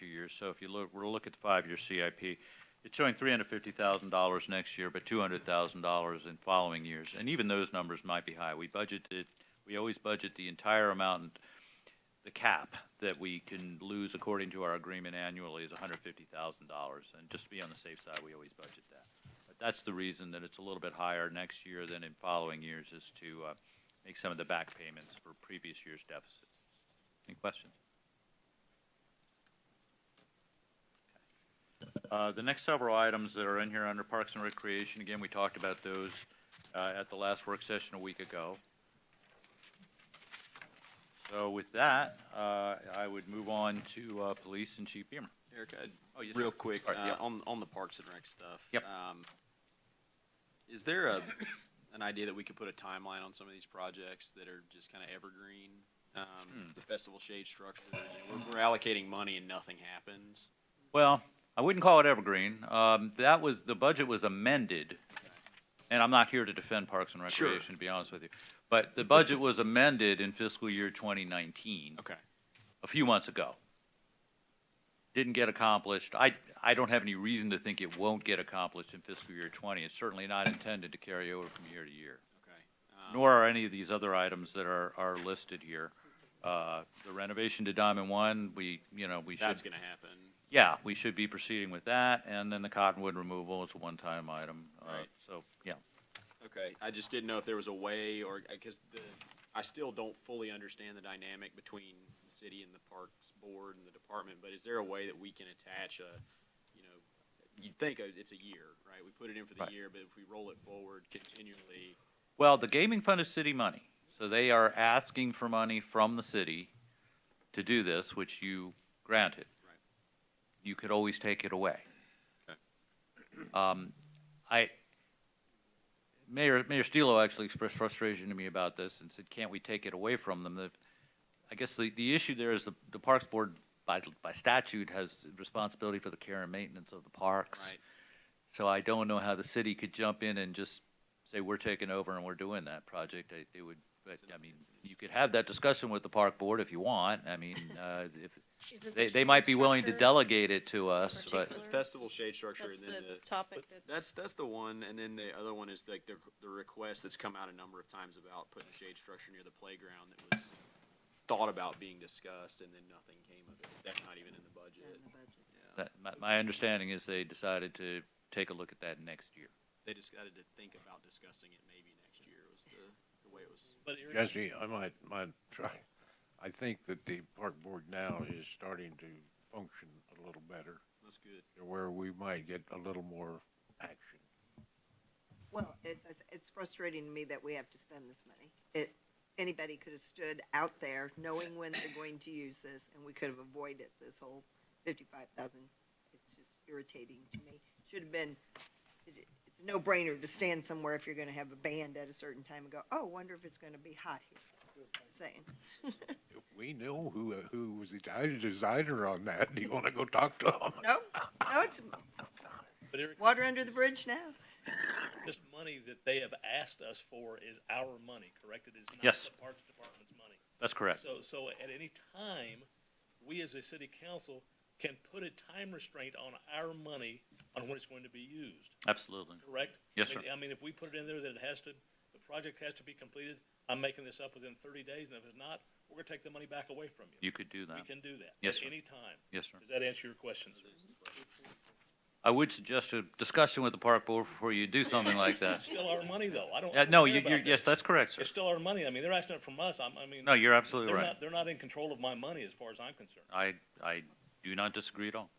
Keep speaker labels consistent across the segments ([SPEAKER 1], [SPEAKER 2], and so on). [SPEAKER 1] years. So if you look, we're looking at the five-year CIP, it's showing three hundred fifty thousand dollars next year, but two hundred thousand dollars in following years. And even those numbers might be high. We budgeted, we always budget the entire amount, and the cap that we can lose according to our agreement annually is hundred fifty thousand dollars. And just to be on the safe side, we always budget that. But that's the reason that it's a little bit higher next year than in following years is to, uh, make some of the back payments for previous year's deficits. Any questions? Uh, The next several items that are in here under Parks and Recreation, again, we talked about those uh, at the last work session a week ago. So with that, uh, I would move on to uh, Police and Chief Beamer.
[SPEAKER 2] Eric, I-
[SPEAKER 1] Oh, yes,
[SPEAKER 2] real
[SPEAKER 1] sir.
[SPEAKER 2] quick,
[SPEAKER 1] All right,
[SPEAKER 2] uh,
[SPEAKER 1] yep.
[SPEAKER 2] on, on the Parks and Rec stuff.
[SPEAKER 1] Yep.
[SPEAKER 2] um, Is there a, an idea that we could put a timeline on some of these projects that are just kind of evergreen?
[SPEAKER 1] Hmm.
[SPEAKER 2] Um, The Festival Shade structure, you know, we're, we're allocating money and nothing happens.
[SPEAKER 1] Well, I wouldn't call it evergreen. Um, That was, the budget was amended, and I'm not here to defend Parks and
[SPEAKER 2] Sure.
[SPEAKER 1] Recreation, to be honest with you. But the budget was amended in fiscal year 2019.
[SPEAKER 2] Okay.
[SPEAKER 1] a few months ago. Didn't get accomplished. I, I don't have any reason to think it won't get accomplished in fiscal year 20. It's certainly not intended to carry over from year to year,
[SPEAKER 2] Okay. um,
[SPEAKER 1] nor are any of these other items that are, are listed here. Uh, The renovation to Diamond One, we, you know, we should,
[SPEAKER 2] That's gonna happen.
[SPEAKER 1] yeah, we should be proceeding with that, and then the cottonwood removal is a one-time item. Uh,
[SPEAKER 2] Right.
[SPEAKER 1] So, yeah.
[SPEAKER 2] Okay, I just didn't know if there was a way or, because the, I still don't fully understand the dynamic between the city and the parks board and the department, but is there a way that we can attach a, you know, you'd think a- it's a year, right? We put it in for the
[SPEAKER 1] Right.
[SPEAKER 2] year, but if we roll it forward continually,
[SPEAKER 1] Well, the gaming fund is city money, so they are asking for money from the city to do this, which you granted.
[SPEAKER 2] Right.
[SPEAKER 1] You could always take it away.
[SPEAKER 2] Okay.
[SPEAKER 1] Um, I, Mayor, Mayor Stilo actually expressed frustration to me about this and said, can't we take it away from them? The- I guess the, the issue there is the, the Parks Board by, by statute has responsibility for the care and maintenance of the parks.
[SPEAKER 2] right?
[SPEAKER 1] So I don't know how the city could jump in and just say, we're taking over and we're doing that project. I- It would, but, I mean, you could have that discussion with the park board if you want. I mean, uh, if,
[SPEAKER 3] Isn't
[SPEAKER 1] they,
[SPEAKER 3] the
[SPEAKER 1] they might be willing to
[SPEAKER 3] structure-
[SPEAKER 1] delegate it to us, but,
[SPEAKER 2] The
[SPEAKER 3] Particular-
[SPEAKER 2] festival shade structure and
[SPEAKER 3] That's
[SPEAKER 2] then
[SPEAKER 3] the
[SPEAKER 2] the.
[SPEAKER 3] topic
[SPEAKER 2] but That's,
[SPEAKER 3] that's,
[SPEAKER 2] that's the one, and then the other one is like the, the request that's come out a number of times about putting a shade structure near the playground that was thought about being discussed and then nothing came of it. That's not even in the budget. Yeah.
[SPEAKER 1] that, my, my understanding is they decided to take a look at that next year.
[SPEAKER 2] They just got to think about discussing it maybe next year was the, the way it was.
[SPEAKER 4] But Eric,
[SPEAKER 5] Jesse, I might, might try. I think that the park board now is starting to function a little better,
[SPEAKER 2] That's good.
[SPEAKER 5] to where we might get a little more action.
[SPEAKER 6] Well, it's, it's- it's frustrating to me that we have to spend this money. It, anybody could have stood out there knowing when they're going to use this and we could have avoided this whole fifty-five thousand. It's just irritating to me. Should have been, it- it's a no-brainer to stand somewhere if you're gonna have a band at a certain time and go, oh, wonder if it's gonna be hot here. Saying,
[SPEAKER 5] We know who, who was the di- designer on that. Do you want to go talk to him?
[SPEAKER 6] no, no, it's
[SPEAKER 4] but Eric,
[SPEAKER 6] water under the bridge now.
[SPEAKER 4] this money that they have asked us for is our money, correct? It is not
[SPEAKER 1] Yes.
[SPEAKER 4] the Parks Department's money.
[SPEAKER 1] That's correct.
[SPEAKER 4] So, so at any time, we as a city council can put a time restraint on our money on when it's going to be used,
[SPEAKER 1] Absolutely.
[SPEAKER 4] correct?
[SPEAKER 1] Yes,
[SPEAKER 4] I mean-
[SPEAKER 1] sir.
[SPEAKER 4] I mean, if we put it in there that it has to, the project has to be completed, I'm making this up within thirty days, and if it's not, we're gonna take the money back away from you.
[SPEAKER 1] You could do
[SPEAKER 4] We
[SPEAKER 1] that.
[SPEAKER 4] can do that.
[SPEAKER 1] Yes,
[SPEAKER 4] At
[SPEAKER 1] sir.
[SPEAKER 4] any time.
[SPEAKER 1] Yes, sir.
[SPEAKER 4] Does that answer your question, sir?
[SPEAKER 1] I would suggest a discussion with the park board before you do something like that.
[SPEAKER 4] It's still our money, though. I don't. I
[SPEAKER 1] Yeah,
[SPEAKER 4] don't
[SPEAKER 1] no,
[SPEAKER 4] care
[SPEAKER 1] you,
[SPEAKER 4] about
[SPEAKER 1] you're, yes,
[SPEAKER 4] this.
[SPEAKER 1] that's correct, sir.
[SPEAKER 4] It's still our money. I mean, they're asking it from us. I'm, I mean.
[SPEAKER 1] No, you're absolutely
[SPEAKER 4] They're
[SPEAKER 1] right.
[SPEAKER 4] not, they're not in control of my money as far as I'm concerned.
[SPEAKER 1] I, I do not disagree at all.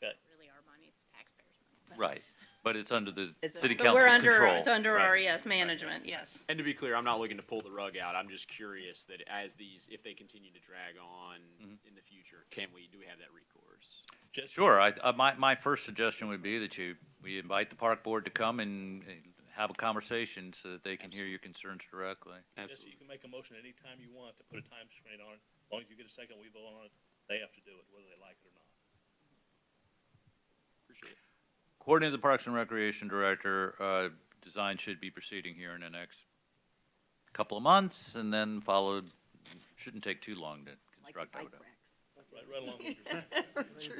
[SPEAKER 3] really our money, it's taxpayers' money. but-
[SPEAKER 1] Right, but it's under the
[SPEAKER 6] It's-
[SPEAKER 1] city
[SPEAKER 6] But
[SPEAKER 3] But we're
[SPEAKER 1] council's
[SPEAKER 3] under,
[SPEAKER 1] control.
[SPEAKER 3] it's under
[SPEAKER 1] Right.
[SPEAKER 3] our, yes, management, yes.
[SPEAKER 2] And to be clear, I'm not looking to pull the rug out. I'm just curious that as these, if they continue to drag on in the future, can we, do we have that recourse?
[SPEAKER 4] Just-
[SPEAKER 1] Sure, I, uh, my, my first suggestion would be that you, we invite the park board to come and uh, have a conversation so that they can hear your concerns directly.
[SPEAKER 4] Just, you can make a motion anytime you want to put a time screen on it. As long as you get a second, we vote on it. They have to do it, whether they like it or not.
[SPEAKER 2] Appreciate it.
[SPEAKER 1] According to the Parks and Recreation Director, uh, design should be proceeding here in the next couple of months and then followed, shouldn't take too long to
[SPEAKER 6] like the
[SPEAKER 1] construct, I
[SPEAKER 6] bike
[SPEAKER 1] would hope.
[SPEAKER 6] racks.
[SPEAKER 4] Right, right along with your.